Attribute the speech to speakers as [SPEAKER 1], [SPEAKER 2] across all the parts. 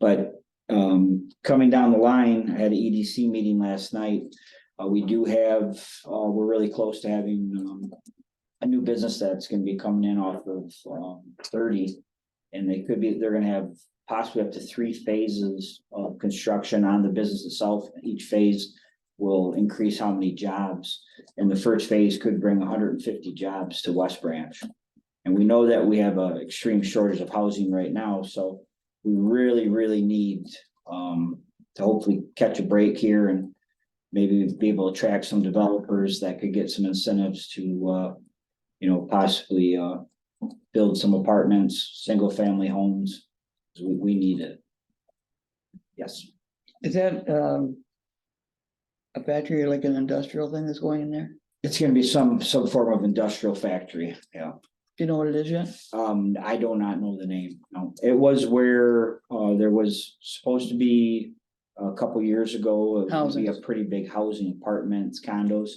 [SPEAKER 1] But um, coming down the line, I had an EDC meeting last night. Uh, we do have, uh, we're really close to having um. A new business that's gonna be coming in off of um thirty. And they could be, they're gonna have possibly up to three phases of construction on the business itself. Each phase will increase how many jobs. And the first phase could bring hundred and fifty jobs to West Branch. And we know that we have an extreme shortage of housing right now, so we really, really need um to hopefully catch a break here and maybe be able to attract some developers that could get some incentives to uh, you know, possibly uh build some apartments, single-family homes. We, we need it. Yes.
[SPEAKER 2] Is that, um, a factory or like an industrial thing that's going in there? Do
[SPEAKER 1] It's gonna be some, some form of industrial factory, yeah.
[SPEAKER 2] you know what it is yet?
[SPEAKER 1] Um, I do not know the name, no. It was where, uh, there was supposed to be a couple years ago. it would Be a
[SPEAKER 2] Housing.
[SPEAKER 1] pretty big housing apartments, condos,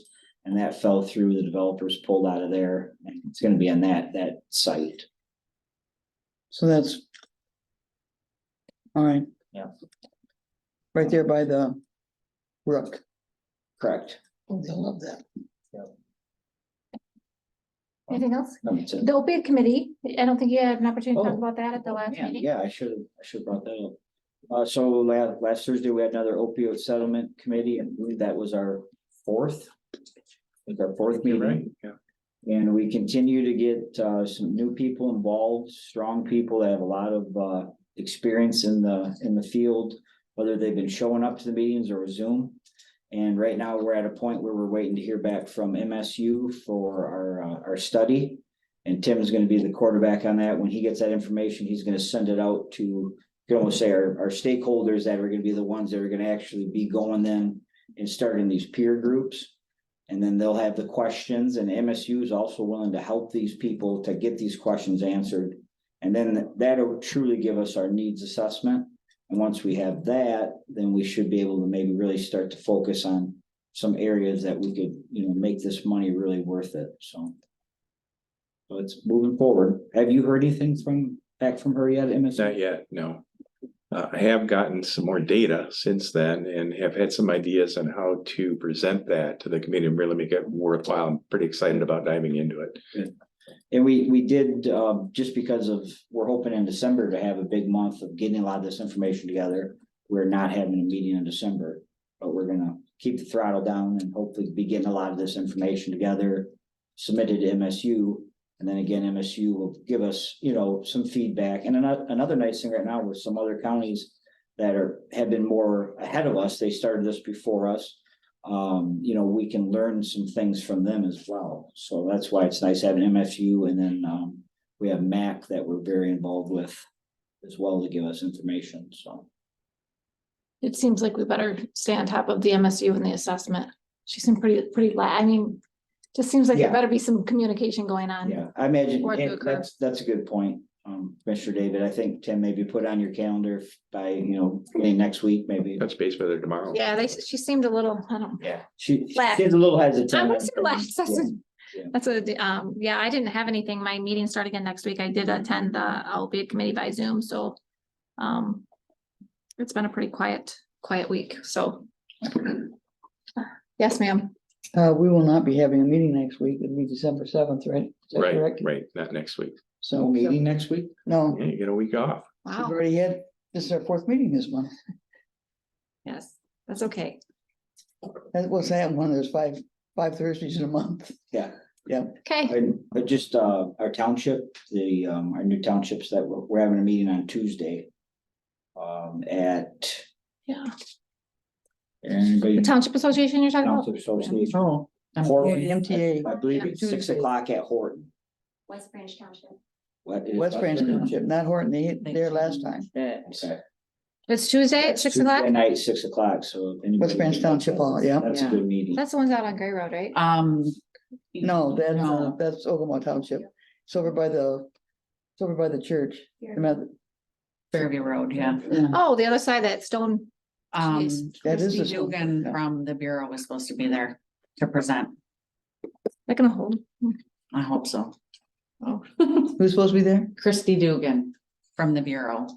[SPEAKER 1] and that fell through. The developers pulled out of there. and It's gonna be on that, that site.
[SPEAKER 2] So that's. All right.
[SPEAKER 1] Yeah.
[SPEAKER 2] Right there by the brook.
[SPEAKER 1] Correct.
[SPEAKER 2] Oh, they'll love that.
[SPEAKER 3] Anything else?
[SPEAKER 1] That's it.
[SPEAKER 3] The opiate committee, I don't think you had an opportunity to
[SPEAKER 1] Oh.
[SPEAKER 3] talk about that at the last
[SPEAKER 1] Man,
[SPEAKER 3] meeting.
[SPEAKER 1] Yeah, I should, have I should have brought that up. Uh, so last, last Thursday, we had another opioid settlement committee, and I believe that was our fourth. Was our fourth
[SPEAKER 4] You're right,
[SPEAKER 1] meeting.
[SPEAKER 4] yeah.
[SPEAKER 1] And we continue to get uh some new people involved, strong people that have a lot of uh experience in the, in the field. Whether they've been showing up to the meetings or Zoom. And right now, we're at a point where we're waiting to hear back from MSU for our, uh, our study. And Tim's gonna be the quarterback on that. When he gets that information, he's gonna send it out to, you can almost say our, our stakeholders that are gonna be the ones that are gonna actually be going then and starting these peer groups. And then they'll have the questions and MSU is also willing to help these people to get these questions answered. And then that'll truly give us our needs assessment. And once we have that, then we should be able to maybe really start to focus on some areas that we could, you know, make this money really worth it, so. So it's moving forward. Have you heard anything from, back from her yet, MSU?
[SPEAKER 4] Not yet, no. Uh, I have gotten some more data since then and have had some ideas on how to present that to the committee and really make it worthwhile. I'm pretty excited about diving into it.
[SPEAKER 1] And we, we did, um, just because of, we're hoping in December to have a big month of getting a lot of this information together. We're not having a meeting in December, but we're gonna keep the throttle down and hopefully be getting a lot of this information together. Submitted to MSU, and then again, MSU will give us, you know, some feedback. And another, another nice thing right now with some other counties that are, have been more ahead of us, they started this before us um, you know, we can learn some things from them as well. So that's why it's nice having MFU and then, um, we have MAC that we're very involved with as well to give us information, so.
[SPEAKER 3] It seems like we better stay on top of the MSU and the assessment. She seemed pretty, pretty la, I mean, just seems like
[SPEAKER 1] Yeah.
[SPEAKER 3] there better be some communication going on.
[SPEAKER 1] Yeah, I imagine,
[SPEAKER 3] Or
[SPEAKER 1] and
[SPEAKER 3] Google.
[SPEAKER 1] that's, that's a good point, um, Commissioner David. I think Tim maybe put on your calendar if by, you know, beginning next week, maybe.
[SPEAKER 4] Touch base with her tomorrow.
[SPEAKER 3] Yeah, they, she seemed a little, I don't.
[SPEAKER 1] Yeah, she, she's
[SPEAKER 3] Laugh.
[SPEAKER 1] a little hesitant.
[SPEAKER 3] I would say
[SPEAKER 1] on
[SPEAKER 3] last,
[SPEAKER 1] things, yeah.
[SPEAKER 3] that's, a-
[SPEAKER 1] yeah.
[SPEAKER 3] that's a, um, yeah, I didn't have anything. My meeting started again next week. I did attend the opiate committee by Zoom, so. Um, it's been a pretty quiet, quiet week, so. Yes, ma'am.
[SPEAKER 2] Uh, we will not be having a meeting next week. It'll be December seventh, right? Is that
[SPEAKER 4] Right,
[SPEAKER 2] correct?
[SPEAKER 4] right, not next week.
[SPEAKER 1] No
[SPEAKER 2] So,
[SPEAKER 1] meeting next week?
[SPEAKER 2] no,
[SPEAKER 4] Yeah, you get a week off.
[SPEAKER 2] we've
[SPEAKER 3] Wow.
[SPEAKER 2] already had, this is our fourth meeting this month.
[SPEAKER 3] Yes, that's okay.
[SPEAKER 2] That was that one, there's five, five Thursdays in a month.
[SPEAKER 3] Okay,
[SPEAKER 1] And but just uh our township, the um our new townships that we're we're having a meeting on Tuesday. Um at.
[SPEAKER 3] yeah. The
[SPEAKER 1] Anybody?
[SPEAKER 3] Township Association you're talking about?
[SPEAKER 1] Township Association.
[SPEAKER 2] Oh.
[SPEAKER 1] Horton.
[SPEAKER 2] MTA,
[SPEAKER 1] I believe it's six o'clock at Horton.
[SPEAKER 3] West Branch Township.
[SPEAKER 1] What is-
[SPEAKER 2] West Branch Township, not Horton. They hit there last time.
[SPEAKER 1] Okay.
[SPEAKER 3] It's Tuesday at six o'clock?
[SPEAKER 1] Tuesday Night, six o'clock, so. if anybody-
[SPEAKER 2] West Branch Township Hall, yeah.
[SPEAKER 1] That's a
[SPEAKER 5] Yeah.
[SPEAKER 1] good meeting.
[SPEAKER 3] That's the ones out on Gray Road, right?
[SPEAKER 1] Uh,
[SPEAKER 5] Um.
[SPEAKER 2] No, that's, uh,
[SPEAKER 5] No.
[SPEAKER 2] that's Ogama Township. It's over by the, it's over by the church. The Meth-
[SPEAKER 5] Fairview Road, yeah.
[SPEAKER 3] Oh, the other side, that stone.
[SPEAKER 5] Um,
[SPEAKER 3] Jeez.
[SPEAKER 2] That is
[SPEAKER 5] Christy
[SPEAKER 2] a school,
[SPEAKER 5] Dugan
[SPEAKER 2] yeah.
[SPEAKER 5] from the Bureau was supposed to be there to present.
[SPEAKER 3] They're gonna hold.
[SPEAKER 5] I hope so.
[SPEAKER 2] Who's supposed to be there?
[SPEAKER 5] Christy Dugan from the Bureau.